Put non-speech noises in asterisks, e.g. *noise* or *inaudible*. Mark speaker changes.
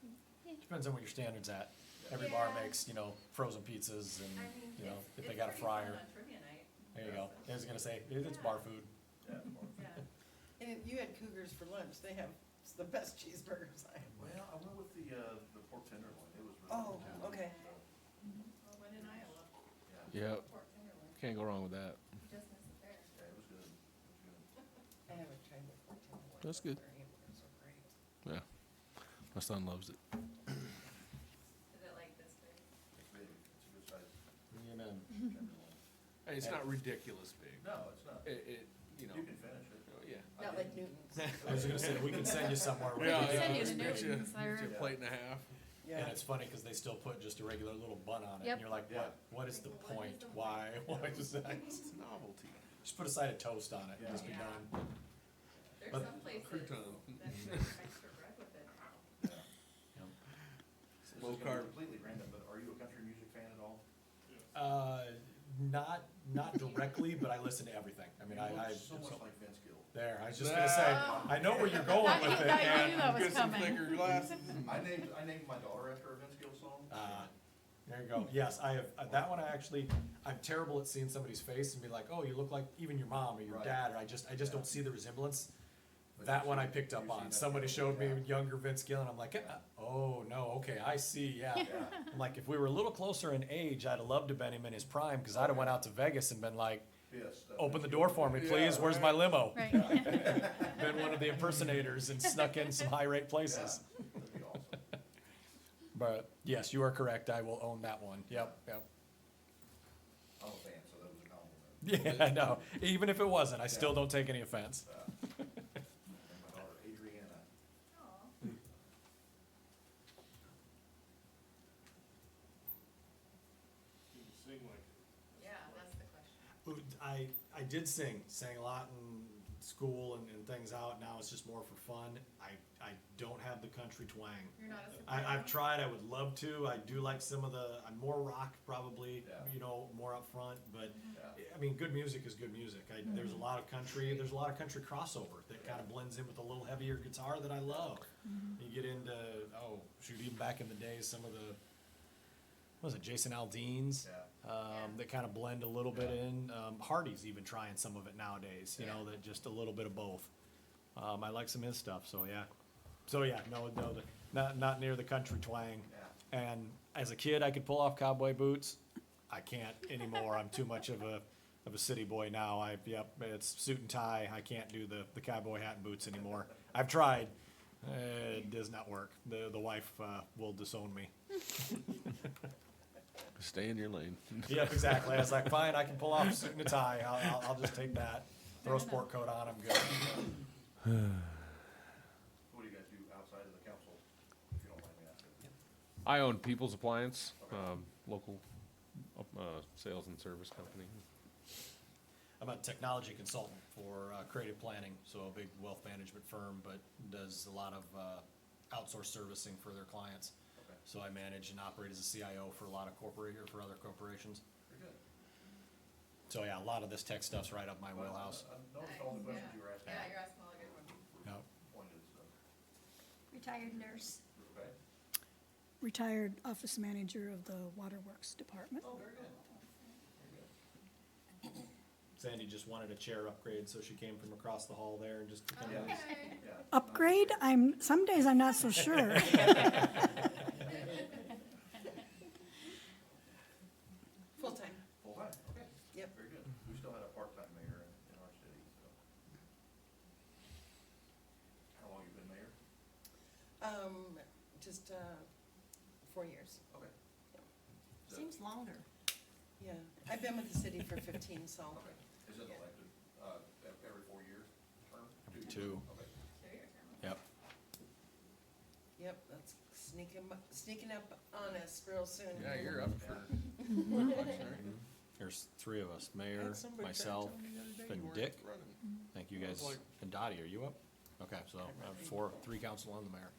Speaker 1: Mm-hmm. Depends on what your standard's at. Every
Speaker 2: Yeah.
Speaker 1: bar makes, you know, frozen pizzas and,
Speaker 2: I mean,
Speaker 1: you know,
Speaker 2: it's-
Speaker 1: if
Speaker 2: it's
Speaker 1: they got a
Speaker 2: pretty fun
Speaker 1: fryer,
Speaker 2: on trivia night.
Speaker 1: there you go. I was gonna say, it- it's
Speaker 2: Yeah.
Speaker 1: bar food.
Speaker 3: Yeah, more.
Speaker 2: Yeah.
Speaker 4: And if you had Cougars for lunch, they have s- the best cheeseburgers I have.
Speaker 3: Well, I went with the, uh, the pork tenderloin, it was really
Speaker 4: Oh,
Speaker 3: good. too.
Speaker 4: okay.
Speaker 2: Well, when in Iowa,
Speaker 3: Yeah,
Speaker 5: Yep,
Speaker 2: pork tenderloin,
Speaker 5: can't go wrong with that.
Speaker 2: you just miss it there.
Speaker 3: yeah, it was good, it was good.
Speaker 4: I haven't tried the pork tenderloin.
Speaker 5: That's
Speaker 4: but
Speaker 5: good.
Speaker 4: Their hamburgers are great.
Speaker 5: Yeah. My son loves it.
Speaker 2: Is it like this big?
Speaker 3: It's big, it's a good size
Speaker 1: Amen.
Speaker 3: tenderloin.
Speaker 6: And it's not ridiculous big.
Speaker 3: No, it's not,
Speaker 6: It, it, you know,
Speaker 3: you can finish it.
Speaker 5: Oh,
Speaker 6: yeah.
Speaker 3: I
Speaker 4: Not
Speaker 3: did.
Speaker 4: like Newton's. *laughs*
Speaker 1: I was gonna say, we can send you somewhere. where
Speaker 6: Yeah,
Speaker 1: you
Speaker 6: yeah,
Speaker 1: can-
Speaker 7: Send you to
Speaker 6: just makes you-
Speaker 7: Newton's, I
Speaker 6: makes you a
Speaker 3: heard.
Speaker 6: plate and a half.
Speaker 4: Yeah.
Speaker 1: And it's funny, cause they still put just a regular little bun on it,
Speaker 7: Yep.
Speaker 1: and you're like,
Speaker 3: Yeah.
Speaker 1: what, what is the
Speaker 2: What is
Speaker 1: point?
Speaker 2: the
Speaker 1: Why, *laughs* why is that?
Speaker 6: It's novelty.
Speaker 1: Just put a side of toast on it,
Speaker 3: Yeah.
Speaker 1: just be
Speaker 2: Yeah.
Speaker 1: done.
Speaker 2: There's
Speaker 1: But-
Speaker 2: some places that
Speaker 6: Crouton.
Speaker 2: serve extra bread with it now.
Speaker 3: This is
Speaker 6: Low
Speaker 3: gonna be
Speaker 6: carb.
Speaker 3: completely random, but are you a country music fan at all?
Speaker 1: Uh, not, not directly, but I listen to everything. I mean,
Speaker 3: You look
Speaker 1: I, I,
Speaker 3: So much like Vince Gill.
Speaker 1: there, I was just gonna say,
Speaker 7: Ah.
Speaker 1: I know where you're going
Speaker 7: Not
Speaker 1: with
Speaker 7: you,
Speaker 1: it.
Speaker 7: not
Speaker 1: man.
Speaker 7: I knew that was
Speaker 6: Get some
Speaker 7: coming.
Speaker 6: thicker glasses.
Speaker 3: *laughs* I named, I named my daughter after a Vince Gill song.
Speaker 1: Ah, there you go. Yes, I have, uh, that one I actually, I'm terrible at seeing somebody's face and be like, oh, you look like even your mom or your
Speaker 3: Right.
Speaker 1: dad, or I just, I just don't see the resemblance.
Speaker 3: But
Speaker 1: That
Speaker 3: you've
Speaker 1: one I
Speaker 3: seen-
Speaker 1: picked up
Speaker 3: you've seen
Speaker 1: on.
Speaker 3: that
Speaker 1: Somebody
Speaker 3: video,
Speaker 1: showed me
Speaker 3: yeah.
Speaker 1: younger Vince Gill and I'm like, "Uh, oh, no, okay, I see, yeah.
Speaker 3: Yeah.
Speaker 1: I'm like, if we were a little closer in age, I'd have loved to been him in his prime, cause I'd have went out to Vegas and been like,
Speaker 3: Yes, that
Speaker 1: open
Speaker 3: Vince
Speaker 1: the
Speaker 3: Gill.
Speaker 1: door for me,
Speaker 6: Yeah,
Speaker 1: please, where's my
Speaker 6: right.
Speaker 1: limo?
Speaker 7: Right.
Speaker 1: Been one of the impersonators and snuck in some high rate
Speaker 3: *laughs* Yeah,
Speaker 1: places.
Speaker 3: That'd be awesome.
Speaker 1: But yes, you are correct, I will own that one. Yep, yep.
Speaker 3: I'm a fan, so that was a
Speaker 1: *laughs*
Speaker 3: compliment.
Speaker 1: Yeah, I know. Even if it wasn't, I still don't take any offense.
Speaker 3: Uh, And my daughter Adriana.
Speaker 2: Aw. Yeah, that's the question.
Speaker 1: I, I did sing, sang a lot in school and, and things out. Now it's just more for fun. I, I don't have the country twang.
Speaker 2: You're not a soprano?
Speaker 1: I, I've tried, I would love to. I do like some of the, I'm more rock probably,
Speaker 3: Yeah.
Speaker 1: you know, more up front, but
Speaker 3: Yeah.
Speaker 1: I mean, good music is good music. I, There's a lot of country. There's a lot of country crossover that kind of blends in with a little heavier guitar that I love. You get into oh shoot, even back in the day, some of the what was it Jason Aldean's
Speaker 3: Yeah.
Speaker 1: um,
Speaker 2: Yeah.
Speaker 1: that kind of blend a little bit
Speaker 3: Yeah.
Speaker 1: in. Um, Hardy's even trying some of it nowadays. You know
Speaker 2: Yeah.
Speaker 1: that just a little bit of both. Um, I like some of his stuff. So yeah, so yeah, no, no, the, not not near the country twang. And as a kid, I could pull off cowboy boots. I can't anymore. I'm too much of a of a city boy now. I yep, it's suit and tie. I can't do the the cowboy hat and boots anymore. I've tried. Uh, it does not work. The the wife uh, will disown me.
Speaker 5: Stay in your lane.
Speaker 1: Yep, exactly. I was like, fine, I can pull off a suit and a tie. I'll, I'll, I'll just take that. Throw a sport coat on. I'm good.
Speaker 3: What do you guys do outside of the council, if you don't mind me asking?
Speaker 5: I own People's Appliance, um, local, uh, sales and service company.
Speaker 1: I'm a technology consultant for uh, creative planning, so a big wealth management firm, but does a lot of uh, outsourced servicing for their clients.
Speaker 3: Okay,
Speaker 1: So I manage and operate as a CIO for a lot of corporate or for other corporations.
Speaker 3: very good.
Speaker 1: So yeah, a lot of this tech stuff's right up my
Speaker 3: Well,
Speaker 1: wheelhouse.
Speaker 3: I I noticed all the
Speaker 2: Nice,
Speaker 3: questions
Speaker 2: yeah.
Speaker 3: you were asking.
Speaker 2: Yeah, you're asking all the good ones.
Speaker 3: *laughs*
Speaker 1: Yep.
Speaker 3: Pointed, so,
Speaker 8: Retired nurse.
Speaker 3: uh, okay.
Speaker 8: Retired office manager of the Waterworks Department.
Speaker 3: Oh, very good.
Speaker 1: Sandy just wanted a chair upgrade, so she came from across the hall there and just kind of,
Speaker 3: Yeah.
Speaker 2: Okay.
Speaker 3: Yeah.
Speaker 8: Upgrade? I'm, some days I'm not so sure.
Speaker 4: Full-time.
Speaker 3: Full time, okay.
Speaker 4: Yep.
Speaker 3: Very good. We still had a part-time mayor in, in our city, so. How long you been mayor?
Speaker 4: Um, just, uh, four years.
Speaker 3: Okay. Is that-
Speaker 4: Seems longer. Yeah, I've been with the city *laughs* for fifteen, so.
Speaker 3: Okay. Is it elected, uh, ev- every four years, term? years?
Speaker 1: Two.
Speaker 3: Okay.
Speaker 2: They're your term.
Speaker 1: yep.
Speaker 4: Yep, that's sneaking, sneaking up on us real soon.
Speaker 6: Yeah, you're up for.
Speaker 1: There's three of us, mayor,
Speaker 6: Had somebody try to
Speaker 1: myself,
Speaker 6: tell me the other day
Speaker 1: and
Speaker 6: you weren't
Speaker 1: Dick.
Speaker 6: running.
Speaker 1: Thank you
Speaker 6: I
Speaker 1: guys.
Speaker 6: was like-
Speaker 1: And Dottie, are you up? Okay, so I have four, uh, three council and the mayor.